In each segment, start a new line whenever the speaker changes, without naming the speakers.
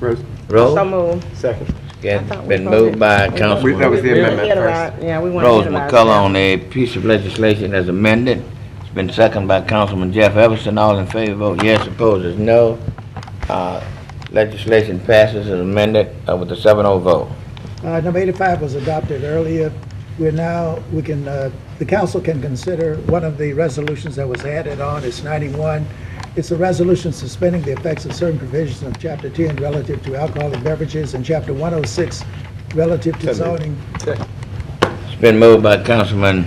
Rose,
Roll?
So moved.
second.
I thought
Okay,
we
been
voted.
moved by
We-
We- that was
Councilwoman
the
We
amendment
wanna
first.
itemize- Yeah, we want to.
Rose McCullough on the piece of legislation as amended. It's been seconded by Councilman Jeff Everson. All in favor, vote yes. Opposed is no. Uh, Legislation passes as amended uh, with a 7-0 vote.
Uh, Number 85 was adopted earlier. We're now, we can, uh, the council can consider one of the resolutions that was added on, it's 91. It's a resolution suspending the effects of certain provisions of Chapter 10 relative to alcoholic beverages and Chapter 106 relative to zoning.
It's been moved by Councilman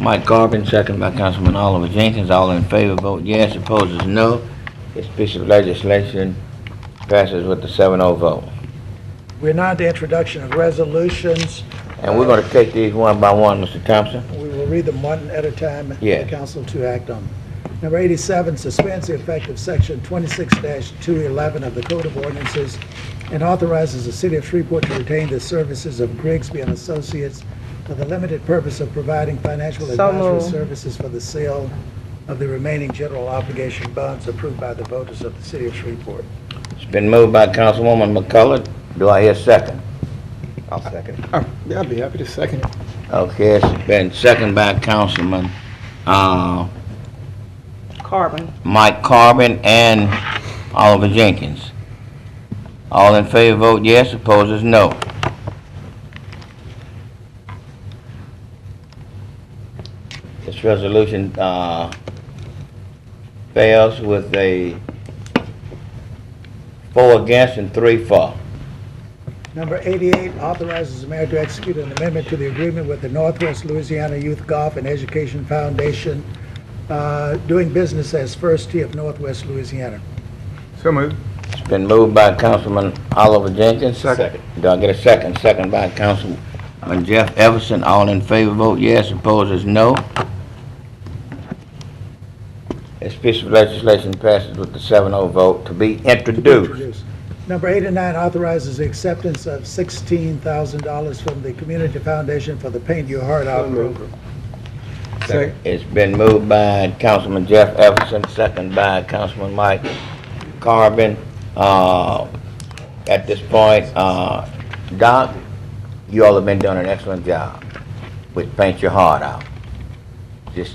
Mike Garvin, seconded by Councilman Oliver Jenkins. All in favor, vote yes. Opposed is no. This piece of legislation passes with a 7-0 vote.
We're now at the introduction of resolutions.
And we're going to take these one by one, Mr. Thompson.
We will read them one at a time for the
Yeah.
council to act on. them. Number 87 suspends the effect of section 26-211 of the Code of Ordinances and authorizes the city of Shreveport to retain the services of Grigsby and Associates for the limited purpose of providing financial
So
advisory
moved.
services for the sale of the remaining general obligation bonds approved by the voters of the city of Shreveport.
It's been moved by Councilwoman McCullough. Do I hear a second? I'll second.
Oh, yeah, I'd be happy to second. it.
Okay, it's been seconded by Councilman, uh,
Carbon.
Mike Carbon and Oliver Jenkins. All in favor, vote yes. Opposed is no. This resolution, uh, fails with a four against and three for.
Number 88 authorizes the mayor to execute an amendment to the agreement with the Northwest Louisiana Youth Golf and Education Foundation, uh, doing business as First Tee of Northwest Louisiana.
So moved.
It's been moved by Councilman Oliver Jenkins.
Second.
Do I get a second? Second by Councilman Jeff Everson. All in favor, vote yes. Opposed is no. This piece of legislation passes with the 7-0 vote to be introduced.
Introduce. Number 89 authorizes the acceptance of $16,000 from the Community Foundation for the Paint Your Heart
So
Out program.
moved. Second.
It's been moved by Councilman Jeff Everson, second by Councilman Mike Carbon. Uh, At this point, uh, Doc, you all have been doing an excellent job with Paint Your Heart Out. Just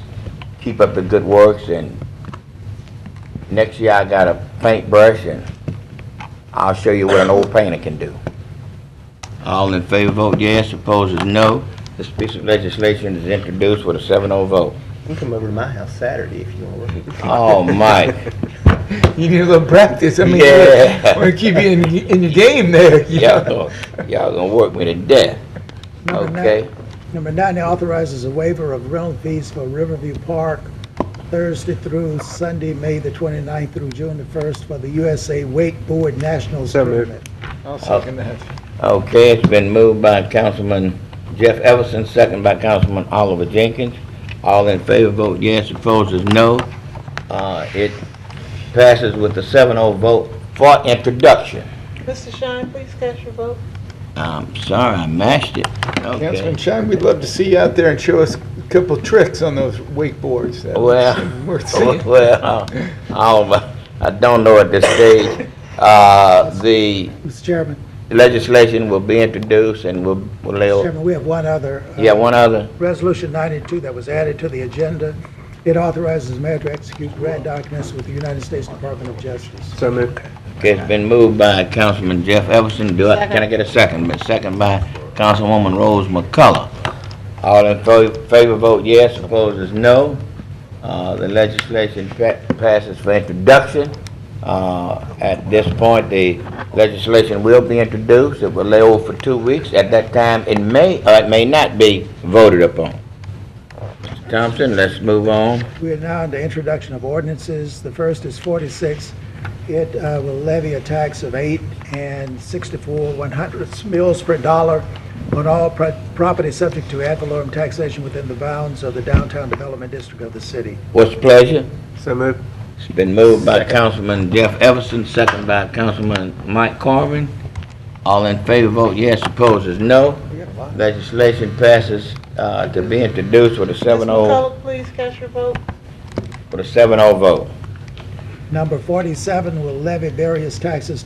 keep up the good works, and next year I got a paintbrush, and I'll show you what an old painter can do. All in favor, vote yes. Opposed is no. This piece of legislation is introduced with a 7-0 vote.
You can come over to my house Saturday if you want to.
Oh, Mike.
You need a little practice. I mean,
Yeah.
want to keep you in, in your game there. You
Y'all
know?
gonna, y'all gonna work me to death,
Number nine-
okay?
Number 90 authorizes a waiver of rental fees for Riverview Park Thursday through Sunday, May the 29th through June the 1st for the USA Wakeboard Nationals
So moved.
Tournament.
I'll second that.
Okay, it's been moved by Councilman Jeff Everson, second by Councilman Oliver Jenkins. All in favor, vote yes, opposed is no. Uh, it passes with a 7-0 vote for introduction.
Mr. Shine, please cast your vote.
I'm sorry, I mashed it.
Councilman
Okay.
Shine, we'd love to see you out there and show us a couple tricks on those wakeboards. That
Well,
worth seeing.
Oh, well, I, I don't know at this stage. Uh, the
Mr. Chairman,
legislation will be introduced and will,
Mr.
will,
Chairman, we have one other. uh,
yeah, one other.
Resolution 92 that was added to the agenda. It authorizes the mayor to execute grant documents with the United States Department of Justice.
So moved.
Okay, it's been moved by Councilman Jeff Everson. Do I, can I get a second? But second by Councilwoman Rose McCullough. All in fo- favor, vote yes. Opposed is no. Uh, the legislation pa- passes for introduction. Uh, at this point, the legislation will be introduced. It will lay over for two weeks. At that time, it may, or it may not be voted upon. Mr. Thompson, let's move on.
We are now in the introduction of ordinances. The first is 46. It uh, will levy a tax of 8 and 64 one hundredths mils per dollar on all pro- property subject to ad valorem taxation within the bounds of the downtown development district of the city.
What's the pleasure?
So moved.
It's been moved by Councilman Jeff Everson, second by Councilman Mike Carvin. All in favor, vote yes, opposed is no. Legislation passes uh, to be introduced with a 7-0,
please cast your vote.
with a 7-0 vote.
Number 47 will levy various taxes